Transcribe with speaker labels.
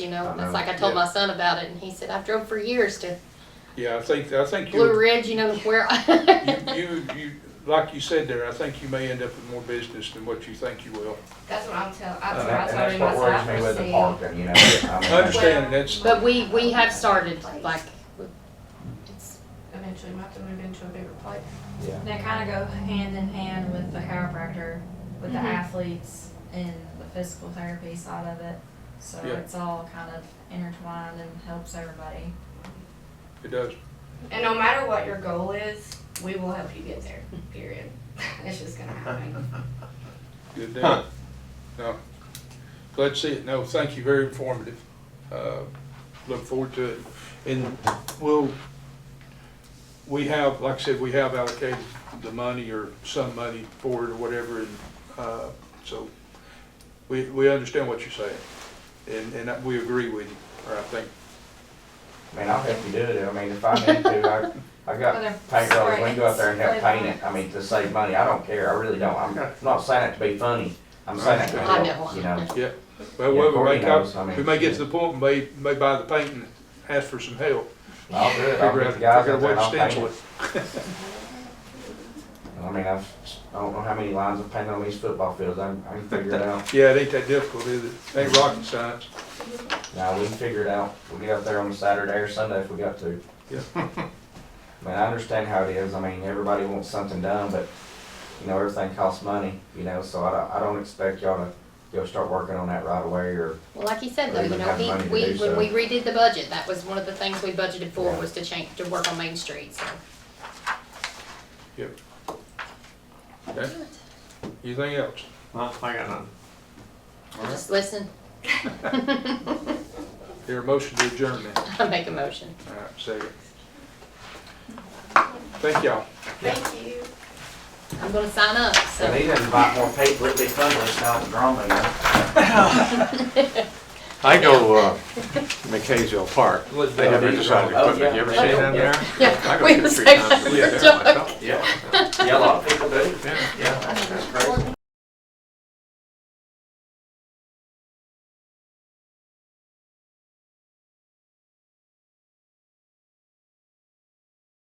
Speaker 1: You know,
Speaker 2: I know,
Speaker 1: it's like I told
Speaker 2: yeah.
Speaker 1: my son about it, and he said, I've drove for years to
Speaker 2: Yeah, I think, I think
Speaker 1: Blue
Speaker 2: you,
Speaker 1: Ridge, you know, where.
Speaker 2: you, you, you, like you said there, I think you may end up with more business than what you think you will.
Speaker 3: That's what I'm telling,
Speaker 2: And
Speaker 3: that's
Speaker 4: Uh, And that's
Speaker 2: that-
Speaker 3: what I was telling
Speaker 4: what worries
Speaker 3: myself.
Speaker 4: me with the
Speaker 3: see.
Speaker 4: parking, you know. I mean,
Speaker 2: I understand, that's,
Speaker 1: But we, we have started, like, it's,
Speaker 3: Eventually, we have to move into a bigger place.
Speaker 4: Yeah.
Speaker 5: They kind of go hand in hand with the chiropractor, with the
Speaker 1: Mhm.
Speaker 5: athletes and the physical therapy side of it. So
Speaker 2: Yeah.
Speaker 5: it's all kind of intertwined and helps everybody.
Speaker 2: it does.
Speaker 3: And no matter what your goal is, we will help you get there, period. It's just gonna happen.
Speaker 2: Good deal. No. Glad to see it. No, thank you. Very informative. Uh, Look forward to it. And we'll, we have, like I said, we have allocated the money or some money for it or whatever. And uh, so we, we understand what you're saying. And, and we agree with you, or I think.
Speaker 4: I mean, I'll help you do it. I mean, if I need to, I, I got
Speaker 5: Whether
Speaker 4: paint rollers, we
Speaker 5: spray-
Speaker 4: can go out there and help
Speaker 5: spray
Speaker 4: paint it.
Speaker 5: paint.
Speaker 4: I mean, to save money. I don't care. I really don't. I'm not saying it to be funny. I'm saying it to
Speaker 1: I
Speaker 4: help,
Speaker 1: know.
Speaker 4: you know.
Speaker 2: Yeah. Well,
Speaker 4: Yeah,
Speaker 2: we may,
Speaker 4: Courtney knows, I
Speaker 2: come-
Speaker 4: mean,
Speaker 2: we may get to
Speaker 4: yeah.
Speaker 2: the point, and may, may buy the paint and ask for some help.
Speaker 4: I'll do it. I'll
Speaker 2: Figure out,
Speaker 4: get the
Speaker 2: figure
Speaker 4: guys out
Speaker 2: out
Speaker 4: there
Speaker 2: what
Speaker 4: and
Speaker 2: to
Speaker 4: I'll
Speaker 2: stencil
Speaker 4: paint
Speaker 2: it.
Speaker 4: it. I mean, I've, I don't know how many lines of paint on these football fields. I, I can figure it out.
Speaker 2: Yeah, it ain't that difficult, is it? Ain't rocket science.
Speaker 4: Now, we can figure it out. We'll get out there on Saturday or Sunday if we got to.
Speaker 2: Yeah.
Speaker 4: I mean, I understand how it is. I mean, everybody wants something done, but, you know, everything costs money, you know, so I don't, I don't expect y'all to go start working on that right away or,
Speaker 1: well, like he said, though,
Speaker 4: Or
Speaker 1: you
Speaker 4: even
Speaker 1: know,
Speaker 4: have
Speaker 1: he,
Speaker 4: money to
Speaker 1: we,
Speaker 4: do
Speaker 1: when
Speaker 4: so.
Speaker 1: we redid the budget, that was one of the things we budgeted for,
Speaker 4: Yeah.
Speaker 1: was to change, to work on Main Street, so.
Speaker 2: Yep. Okay, anything else?
Speaker 6: Well, I got none.
Speaker 1: Just listen. I
Speaker 2: Here, a motion to adjourn then.
Speaker 1: make a motion.
Speaker 2: All right, second. Thank y'all.
Speaker 3: Thank you.
Speaker 1: I'm gonna sign up,
Speaker 4: and
Speaker 1: so.
Speaker 4: they didn't invite more people, it'd be fun, but it's not drama, you know.
Speaker 6: I go, uh, McKaysville Park. They have exercise
Speaker 4: Oh, yeah.
Speaker 6: equipment. You ever seen that there? I
Speaker 1: Yeah,
Speaker 6: go
Speaker 1: we
Speaker 6: two,
Speaker 1: have
Speaker 6: three
Speaker 1: section
Speaker 6: times a
Speaker 1: for
Speaker 6: week there
Speaker 1: Joe.
Speaker 6: myself.
Speaker 4: Yeah, a lot of people do. Yeah, that's great.